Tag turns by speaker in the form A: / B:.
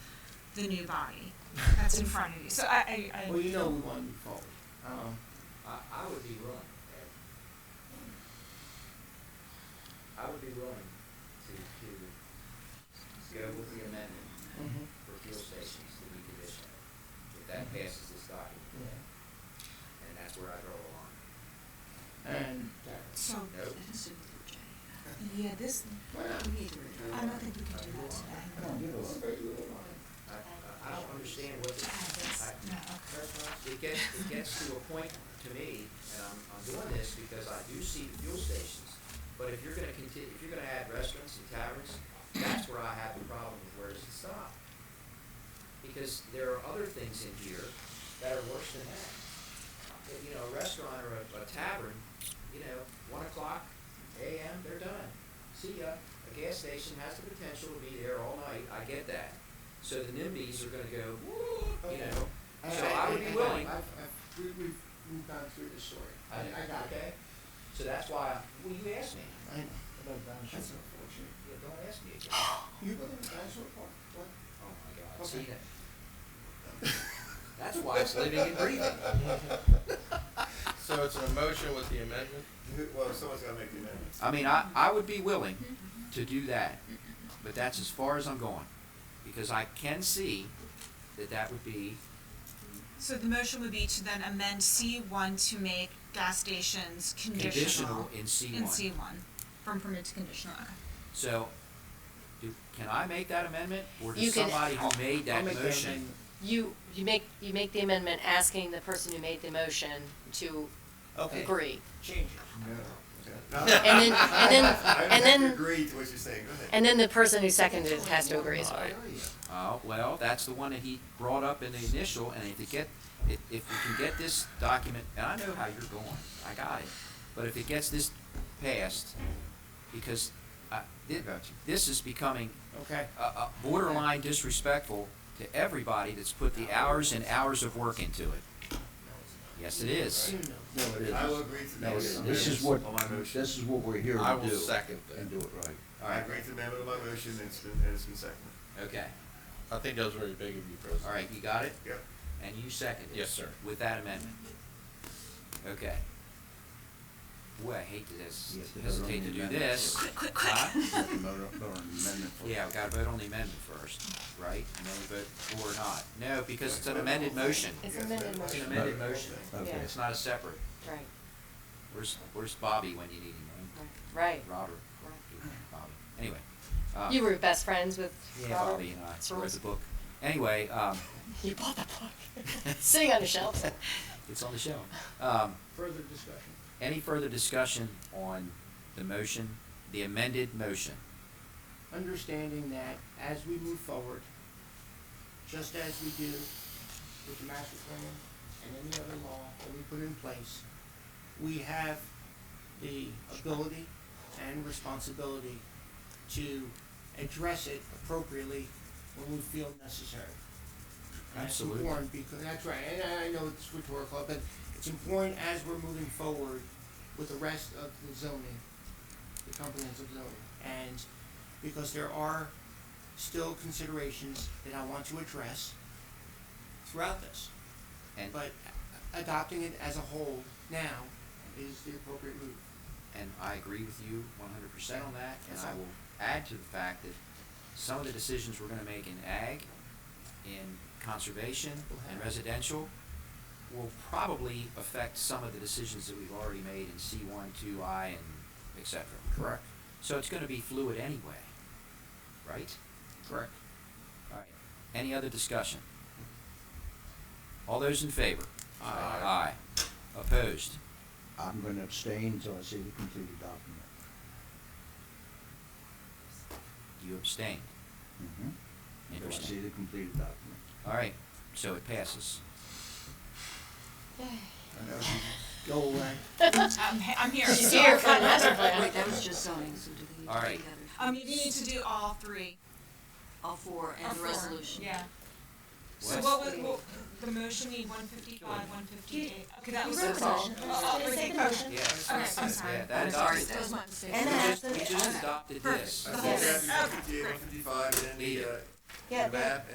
A: the new body that's in front of you. So I, I, I
B: Well, you know we want to move forward. Um,
C: I, I would be willing. I would be willing to, to go with the amendment
B: mhm,
C: for fuel stations to be conditional. If that passes this document,
B: yeah.
C: and that's where I draw the line.
B: And,
A: so
C: Nope.
A: yeah, this
B: well,
A: we need to. I don't think we can do that today.
B: come on, give us a very little line.
C: I, I- I don't understand
A: I
C: what this,
A: have
C: I,
A: this. No. Okay.
C: it gets, it gets to a point to me, and I'm, I'm doing this because I do see the fuel stations, but if you're gonna continue, if you're gonna add restaurants and taverns, that's where I have the problem with where does it stop? Because there are other things in here that are worse than that. But, You know, a restaurant or a, a tavern, you know, one o'clock AM, they're done. See ya. A gas station has the potential to be there all night, I get that. So the NIMBYs are gonna go, you
B: Okay.
C: know, so I would be willing.
B: I've, I've, we, we've, we've gone through this story. I, I got it.
C: Okay, so that's why, well, you asked me,
B: I know. That's unfortunate.
C: Yeah, don't ask me again.
B: You live in Dinosaur Park? What?
C: Oh my God,
B: Okay.
C: see that? That's why it's living and breathing.
D: So it's a motion with the amendment?
E: Well, someone's gotta make the amendment.
C: I mean, I, I would be willing
B: Mm-hmm.
C: to do that, but that's as far as I'm going. Because I can see that that would be,
A: So the motion would be to then amend C one to make gas stations
C: Conditional
A: conditional.
C: in C1.
A: In C one, from permit to conditional, okay.
C: so, do, can I make that amendment? Or
F: You
C: does
F: can-
C: somebody who made that
B: I'll make the
C: motion?
B: amendment.
F: You, you make, you make the amendment asking the person who made the motion to
C: Okay.
F: agree.
C: Change
E: No.
F: And then, and then,
E: I
F: and
E: don't
F: then,
E: agree to what you're saying, go ahead.
F: and then the person who seconded it has to agree
B: Oh,
F: as well.
C: it. Uh, well, that's the one that he brought up in the initial, and if you get, if, if we can get this document, and I know how you're going, I got it. But if it gets this passed, because, uh, thi- this is becoming
B: Okay.
C: uh, uh, borderline disrespectful to everybody that's put the hours and hours of work into it. Yes, it is.
G: No, it
E: I will
G: isn't.
E: agree to the
G: No, it isn't.
E: amendment.
G: This is what,
E: On my motion.
G: this is what we're here to do.
D: I will second that.
G: And do it right.
E: I agree to the amendment of my motion, and it's been, and it's been seconded.
C: Okay,
D: I think that was very big of you, President.
C: all right, you got it?
E: Yep.
C: And you seconded it?
D: Yes, sir.
C: With that amendment? Okay. Boy, I hate to this,
G: You have to vote on the
C: hesitate to do
G: amendment
C: this.
G: first.
A: Quick, quick,
C: Huh?
G: Vote on amendment for-
C: Yeah, we gotta vote on the amendment first, right? And then we vote or not. No, because it's an amended motion.
F: It's
E: Yes,
F: amended
E: amendment.
C: It's an
F: motion,
C: amended motion.
G: Okay.
C: It's not a separate.
F: right,
C: Where's, where's Bobby when you need him? right?
F: right,
C: Robert, Bobby, anyway. uh,
F: right. You were best friends with
C: Yeah,
F: Robert?
C: Bobby and I read
F: Rules.
C: the book. Anyway, um,
F: You bought that book, sitting on a shelf.
C: it's on the shelf. Um,
B: Further discussion.
C: any further discussion on the motion, the amended motion?
B: understanding that as we move forward, just as we do with the master plan and any other law that we put in place, we have the ability and responsibility to address it appropriately when we feel necessary. That's
C: Absolutely.
B: important because, that's right, and I- I know it's rhetorical, but it's important as we're moving forward with the rest of the zoning, the comprehensive zoning. And because there are still considerations that I want to address throughout this.
C: And,
B: But adopting it as a whole now is the appropriate move.
C: and I agree with you one hundred percent on that, and I will add to the fact that some of the decisions we're gonna make in ag, in conservation, and residential will probably affect some of the decisions that we've already made in C one, two, I, and et cetera.
B: Correct.
C: So it's gonna be fluid anyway, right?
B: Correct.
C: All right. Any other discussion? All those in favor? Aye. Aye. Opposed?
G: I'm gonna abstain until I see the completed document.
C: You abstained.
G: Mhm. Until I see
C: Interesting.
G: the completed document.
C: All right, so it passes.
B: Go away.
A: I'm, he- I'm here.
F: She's here for the master
H: Wait,
F: plan.
H: that was just zoning, so do we need to do the
C: All right.
A: Um,
H: other?
A: you need to do all three.
H: All four
A: or
H: and the
A: four.
H: resolution.
A: Yeah. So
C: What?
A: what was, what, the motion need one fifty-five, one fifty-eight, okay, that was.
H: wrote the motion.
A: Oh, oh, okay, motion.
C: Yeah.
A: Okay, I'm sorry.
C: Yeah, that
H: I'm sorry,
C: adopted.
H: that was my
C: We
H: mistake.
F: And I
C: just, we
F: actually-
C: just adopted this.
E: I think we have to do 58, 155, and then the, uh,
F: Yeah,
E: the map,